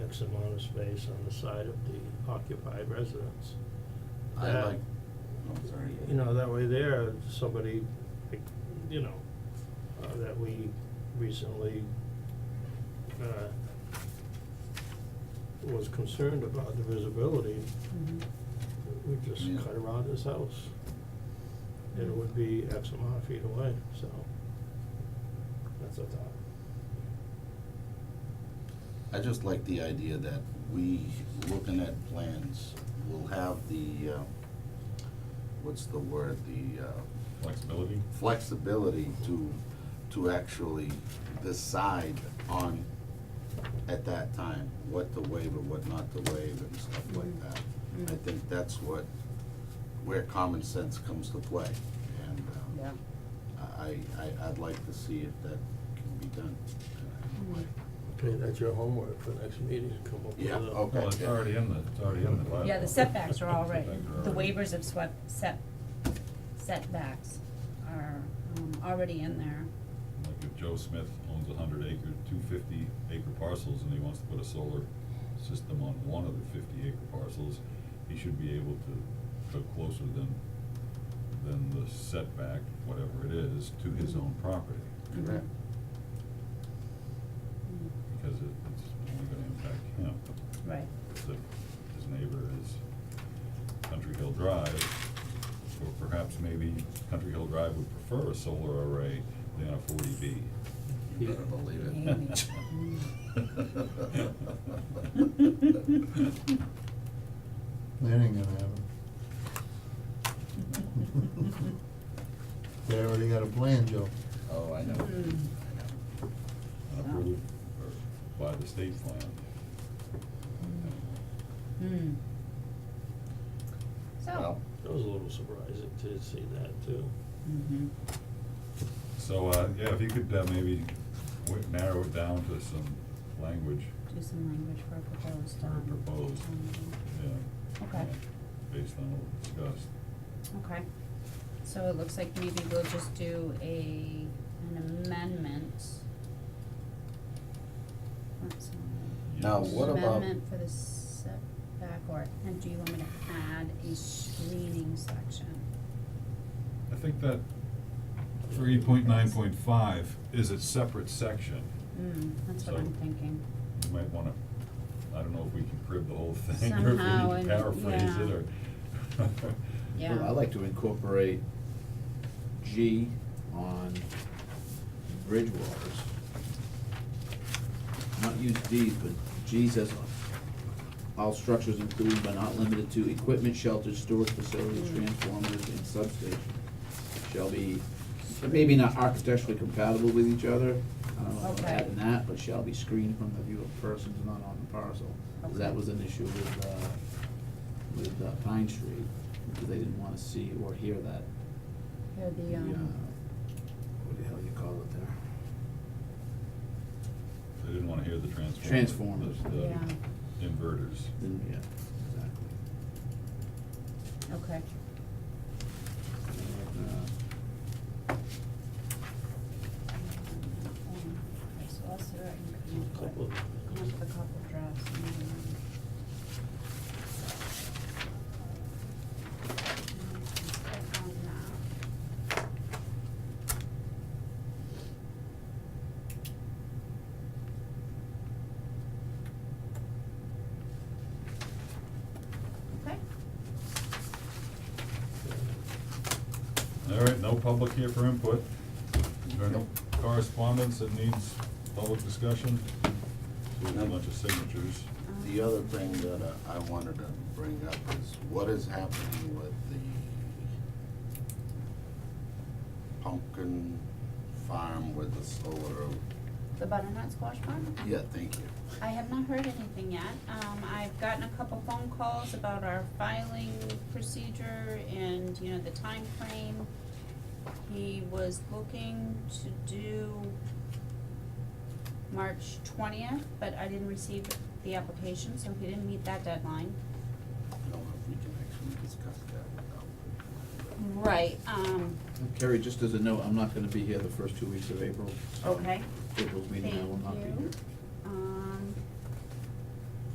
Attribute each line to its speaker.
Speaker 1: X amount of space on the side of the occupied residence.
Speaker 2: I
Speaker 1: That-
Speaker 2: like, oh, sorry.
Speaker 1: You know, that way there, somebody, like, you know, uh, that we recently, uh, was concerned about the visibility,
Speaker 3: Mhm.
Speaker 1: we just
Speaker 2: Yeah.
Speaker 1: cut around his house. And it would be X amount of feet away, so that's a thought.
Speaker 2: I just like the idea that we, looking at plans, will have the, uh, what's the word, the, uh,
Speaker 4: Flexibility?
Speaker 2: flexibility to, to actually decide on, at that time, what to waive and what not to waive and stuff like
Speaker 1: Mm-hmm.
Speaker 2: that. I
Speaker 3: Mm.
Speaker 2: think that's what, where common sense comes to play, and, um,
Speaker 3: Yeah.
Speaker 2: I, I, I'd like to see if that can be done.
Speaker 1: Mm-hmm. Okay, that's your homework for next meeting, come up with a.
Speaker 2: Yeah, Oh. okay.
Speaker 4: Well, it's already in the, it's already in the bylaw.
Speaker 3: Yeah, the setbacks are already,
Speaker 4: Setbacks are
Speaker 3: the
Speaker 4: already-
Speaker 3: waivers of swept, set, setbacks are, um, already in there.
Speaker 4: Like if Joe Smith owns a hundred acre, two fifty acre parcels and he wants to put a solar system on one of the fifty acre parcels, he should be able to go closer than, than the setback, whatever it is, to his own property.
Speaker 2: Correct.
Speaker 3: Mm,
Speaker 4: Because it, it's only gonna impact him.
Speaker 3: Right,
Speaker 4: If his neighbor is Country Hill Drive, or perhaps maybe Country Hill Drive would prefer a solar array than a forty B.
Speaker 2: You better believe it.
Speaker 3: Amy. Mm-hmm.
Speaker 5: That ain't gonna happen. They already got a plan, Joe.
Speaker 2: Oh, I know.
Speaker 3: Mm.
Speaker 4: Approved or by the state plan.
Speaker 3: hmm. So.
Speaker 2: Well,
Speaker 1: That was a little surprising to see that too.
Speaker 3: Mm-hmm.
Speaker 4: So, uh, yeah, if you could, uh, maybe w- narrow it down to some language,
Speaker 3: Do some language for a proposed,
Speaker 4: For
Speaker 3: um.
Speaker 4: proposed.
Speaker 3: um,
Speaker 4: yeah.
Speaker 3: Okay.
Speaker 4: yeah, Based on what we discussed.
Speaker 3: Okay, so it looks like maybe we'll just do a, an amendment. That's all.
Speaker 2: Now, what about-
Speaker 3: Amendment for the setback or, and do you want me to add a screening section?
Speaker 4: I think that three point nine point five is a separate section.
Speaker 3: Hmm, that's what I'm
Speaker 4: So-
Speaker 3: thinking.
Speaker 4: You might wanna, I don't know if we can crib the whole thing, or if we
Speaker 3: Somehow,
Speaker 4: need to
Speaker 3: and-
Speaker 4: paraphrase it,
Speaker 3: yeah.
Speaker 4: or.
Speaker 3: Yeah.
Speaker 6: I'd like to incorporate G on bridge waters. Not use D, but G says all structures including but not limited to equipment, shelters, storage facilities,
Speaker 3: Mm.
Speaker 6: transformers, and substations shall be, maybe not architecturally compatible with each other. I don't know if I'm
Speaker 3: Okay.
Speaker 6: adding that, but shall be screened from the view of persons not on the parcel. 'Cause That
Speaker 3: Okay.
Speaker 6: was an issue with, uh, with uh, Pine Street, because they didn't wanna see or hear that.
Speaker 3: Here the,
Speaker 6: uh,
Speaker 3: um,
Speaker 6: What the hell you call it there?
Speaker 4: They didn't wanna hear the transformer.
Speaker 6: Transformers.
Speaker 4: uh, the- the
Speaker 3: yeah,
Speaker 4: Inverters.
Speaker 6: Then, yeah, exactly.
Speaker 3: okay,
Speaker 6: And, uh,
Speaker 3: Okay, so I'll see what I can come up
Speaker 1: Couple
Speaker 3: with.
Speaker 1: of-
Speaker 3: Come up with a couple drafts and then. Okay,
Speaker 4: All right, no public here for input. Is there any
Speaker 6: Nope.
Speaker 4: correspondence that needs public discussion? So we have a
Speaker 2: None.
Speaker 4: bunch of signatures.
Speaker 3: um,
Speaker 2: The other thing that uh, I wanted to bring up is what is happening with the pumpkin farm with the solar,
Speaker 3: The butternut squash farm?
Speaker 2: yeah, thank you.
Speaker 3: I have not heard anything yet. Um, I've gotten a couple phone calls about our filing procedure and, you know, the time frame. He was looking to do March twentieth, but I didn't receive the application, so he didn't meet that deadline.
Speaker 2: I don't know if we can actually discuss that
Speaker 3: Hmm.
Speaker 2: without.
Speaker 3: Right, um,
Speaker 6: Carrie, just as a note, I'm not gonna be here the first two weeks of April. so
Speaker 3: Okay.
Speaker 6: April's meeting, I will
Speaker 3: Thank
Speaker 6: not be
Speaker 3: you. Um,
Speaker 6: here.